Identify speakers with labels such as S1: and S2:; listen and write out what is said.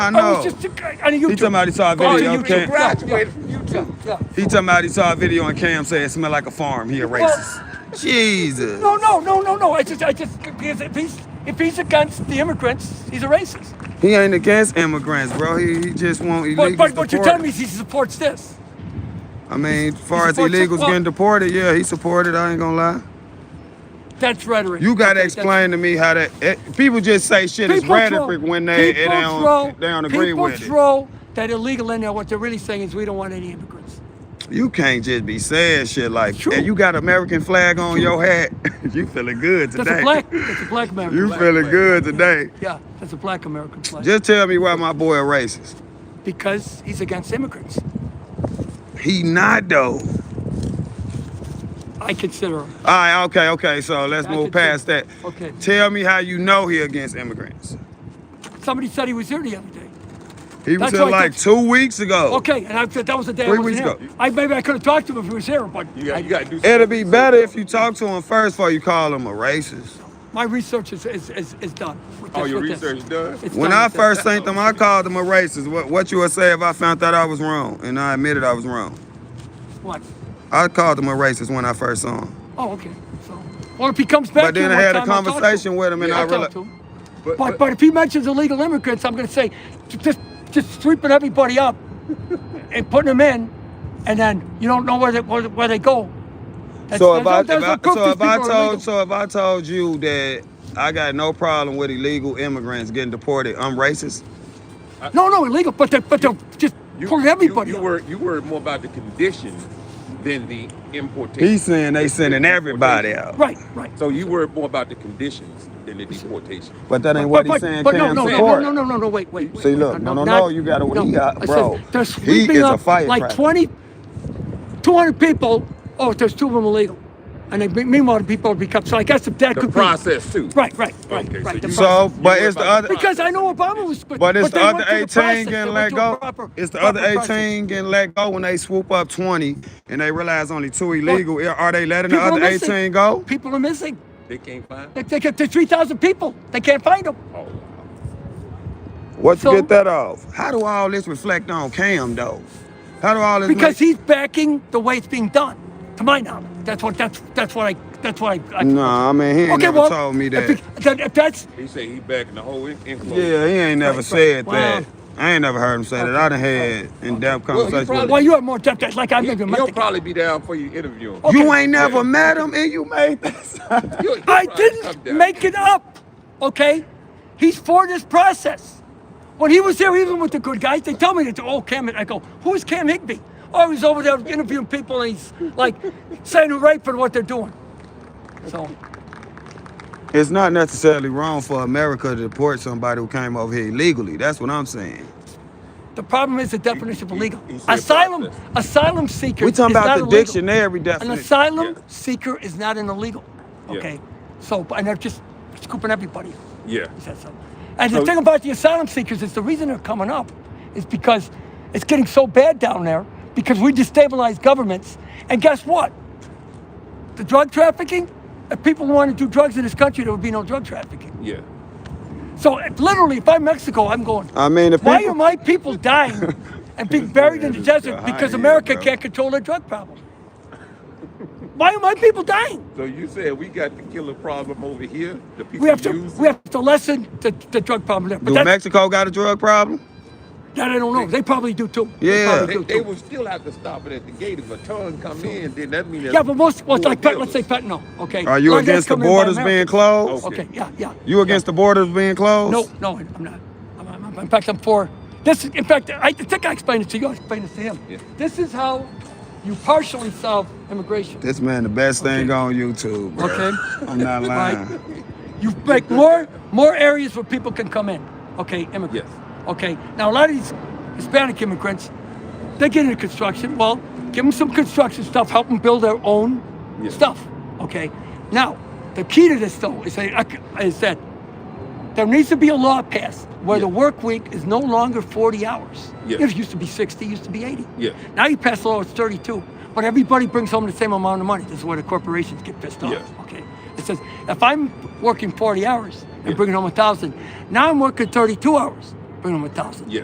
S1: I
S2: I
S1: know.
S2: was just on
S1: He talking
S2: YouTube.
S1: about he saw a
S2: Oh,
S1: video
S2: you
S1: on Cam.
S2: graduated from Utah. Yeah.
S1: He talking about he saw a video on Cam say it smelled like a farm. He a racist.
S3: Jesus.
S2: No, no, no, no, no. I just, I just, because if he's, if he's against the immigrants, he's a racist.
S1: He ain't against immigrants, bro. He, he just want illegals
S2: But, but what you're
S1: deported.
S2: telling me is he supports this.
S1: I mean, as far as
S2: supports it.
S1: illegals
S2: Well-
S1: getting deported, yeah, he supported. I ain't gonna lie.
S2: That's rhetoric.
S1: You gotta
S2: Okay, that's-
S1: explain to me how that it, people just say shit is
S2: People throw-
S1: rhetoric when they they
S2: people
S1: don't
S2: throw-
S1: they don't agree
S2: people
S1: with
S2: throw that illegal in there. What they're really saying is we don't want any immigrants.
S1: it. You can't just be saying shit like
S2: True.
S1: and you got American flag on your hat. you feeling good today.
S2: That's a black. That's a black American.
S1: You
S2: flag.
S1: feeling good today.
S2: Yeah, that's a black American flag.
S1: Just tell me why my boy a racist.
S2: because he's against immigrants.
S1: He not though.
S2: I consider him.
S1: All right, okay, okay. So let's
S2: I
S1: move
S2: could tell-
S1: past that.
S2: okay.
S1: Tell me how you know he against immigrants.
S2: Somebody said he was here the other day.
S1: He was
S2: That's
S1: here
S2: why I
S1: like
S2: thought-
S1: two weeks ago.
S2: Okay, and I said that was the day
S1: Oh. Three
S2: I
S1: weeks
S2: wasn't here. I maybe I could have talked to him if he was here, but
S3: You got,
S2: I-
S3: you got to do something.
S1: It'll be better if you talk to him first before you call him a racist.
S2: my research is is, is, is done. with
S3: Oh,
S2: this-
S3: your
S2: with this.
S3: research done?
S2: It's
S1: When
S2: done
S1: I
S2: with this.
S1: first seen him, I called him a racist. What what you would say if I found out I was wrong and I admitted I was wrong?
S2: What?
S1: I called him a racist when I first saw him.
S2: Oh, okay. So, well, if he comes back,
S1: But
S2: to you
S1: then I
S2: one
S1: had a
S2: time, I'll talk to
S1: conversation
S2: him.
S1: with him and
S3: Yeah,
S1: I
S2: I'll talk
S1: realized
S2: to him.
S3: But,
S2: But but if he mentions illegal immigrants, I'm going to say "J- just just sweeping everybody up and putting them in, and then you don't know where they where, where they go. That's-
S1: So if I, if
S2: that's- that's
S1: I
S2: what proof
S1: so
S2: these
S1: if I
S2: people are illegal.
S1: told so if I told you that I got no problem with illegal immigrants getting deported, I'm racist.
S2: no no illegal, but they but they're just pulling everybody
S3: You,
S2: up.
S3: you, were, you were more about the condition than the importation.
S1: He's saying they sending everybody out.
S2: right right.
S3: So you were more about the conditions than the deportation.
S1: But that ain't
S2: But,
S1: what
S2: but,
S1: he's saying.
S2: but no,
S1: Cam
S2: no, no,
S1: support.
S2: no, no, no, no, wait, wait. wait
S1: See,
S2: wait,
S1: look, no, no, no,
S2: not-
S1: you gotta- he got-
S2: I said,
S1: bro,
S2: they're
S1: he
S2: sweeping
S1: is a
S2: up like
S1: firecracker.
S2: 20, 200 people. Oh, there's two of them illegal, and they, meanwhile, the people become. So I guess that
S3: The
S2: could
S3: process, too.
S2: be right, right, right,
S3: Okay,
S2: right.
S3: so
S2: the
S3: you-
S2: process.
S1: So, but
S3: You
S1: it's the
S3: were about
S1: other.
S3: to-
S2: because I know Obama was, but,
S1: But it's
S2: they
S1: the other
S2: went through
S1: 18
S2: the process. They
S1: getting
S2: went
S1: let
S2: through a
S1: go.
S2: proper-
S1: it's the
S2: proper
S1: other
S2: process.
S1: 18 getting let go when they swoop up 20 and they realize only two illegal. Are they letting the
S2: People are
S1: other
S2: missing.
S1: 18 go?
S2: People are missing.
S3: They can't find
S2: They, they get to 3,000 people. They can't find them.
S3: Oh,
S1: What
S2: So-
S1: you get that off? How do all this reflect on Cam though? How do all this?
S2: Because
S1: make-
S2: he's backing the way it's being done, to my knowledge. That's what that's that's what I that's what I. I
S1: Nah, I mean he ain't never told me that.
S2: If, it- then if that's
S3: He said he backing the whole in- inflow.
S1: yeah, he ain't never
S2: Right,
S1: said
S2: right.
S1: that.
S2: Wow.
S1: I ain't never heard him say that. I done had in-depth
S3: Well, he
S1: conversations. with
S3: probably-
S2: well, you have more depth. that's Like I
S3: He,
S2: maybe met
S3: will
S2: the guy.
S3: probably be down for you interview him.
S2: Oh,
S1: him. You
S2: okay.
S1: ain't never met him and you made this.
S3: You'll- you'll
S2: I
S3: probably come
S2: didn't
S3: down.
S2: make it up. Okay, he's for this process. When he was there, even with the good guys, they tell me that. Oh, Cam, I go, who's Cam Higby? Oh, he's over there interviewing people, and he's like saying hooray for what they're doing. So
S1: it's not necessarily wrong for America to deport somebody who came over here illegally. That's what I'm saying.
S2: the problem is the definition of
S3: he-
S2: illegal.
S3: he said
S2: Asylum,
S3: process.
S2: asylum seeker.
S1: We talking
S2: is not
S1: about the
S2: illegal.
S1: dictionary
S2: An
S1: definition.
S2: asylum
S3: Yeah.
S2: seeker is not an illegal.
S3: Yeah.
S2: Okay, so and they're just scooping everybody.
S3: Yeah.
S2: He said so. And the
S3: So-
S2: thing about the asylum seekers is the reason they're coming up is because it's getting so bad down there because we destabilize governments. And guess what? The drug trafficking, if people wanted to do drugs in this country, there would be no drug trafficking.
S3: Yeah.
S2: So if, literally, if I'm Mexico, I'm going,
S1: I mean, if
S2: why
S1: people-
S2: are my people dying and being buried in the
S1: This
S2: desert
S1: guy
S2: because
S1: here,
S2: America
S1: bro.
S2: can't control their drug problem? Why are my people dying?
S3: So you said we got the killer problem over here. The people
S2: We have to,
S3: use
S2: we
S3: it.
S2: have to lessen the, the drug problem there. But
S1: Do
S2: that's,
S1: Mexico got a drug problem?
S2: that I don't know. They probably do too. They
S1: Yeah.
S2: probably
S3: They,
S2: do
S3: they
S2: too.
S3: will still have to stop it at the gate if a ton come in. Then that means
S2: Yeah, but most, well, it's
S3: more
S2: like, fent- let's say
S3: dealers.
S2: fentanyl, okay?
S1: Are you
S2: Like
S1: against
S2: that's
S1: the
S2: coming in by
S1: borders being
S2: America.
S1: closed?
S3: Okay.
S2: Okay, yeah, yeah.
S1: You against the borders being closed?
S2: No, no, I'm not. I'm, I'm- in fact, I'm for, this, is- in fact, I think I explained it to you, I explained it to him.
S3: Yeah.
S2: This is how you partially solve immigration,
S1: This man, the best thing
S2: Okay.
S1: on YouTube. Bro.
S2: okay?
S1: I'm not lying.
S2: Right? You make more, more areas where people can come in, okay, immigrants.
S3: Yes.
S2: Okay, now a lot of these Hispanic immigrants, they get into construction, well, give them some construction stuff, help them build their own
S3: Yes.
S2: stuff, okay? Now, the key to this though is that, is that there needs to be a law passed where the
S3: Yes.
S2: work week is no longer 40 hours.
S3: Yes.
S2: It used to be 60, it used to be 80.
S3: Yes.
S2: Now you pass a law, it's 32, but everybody brings home the same amount of money. This is where the corporations get pissed off,
S3: Yes.
S2: okay? It says, if I'm working 40 hours and
S3: Yes.
S2: bringing home a thousand, now I'm working 32 hours.
S4: bring him a thousand.
S2: Yeah.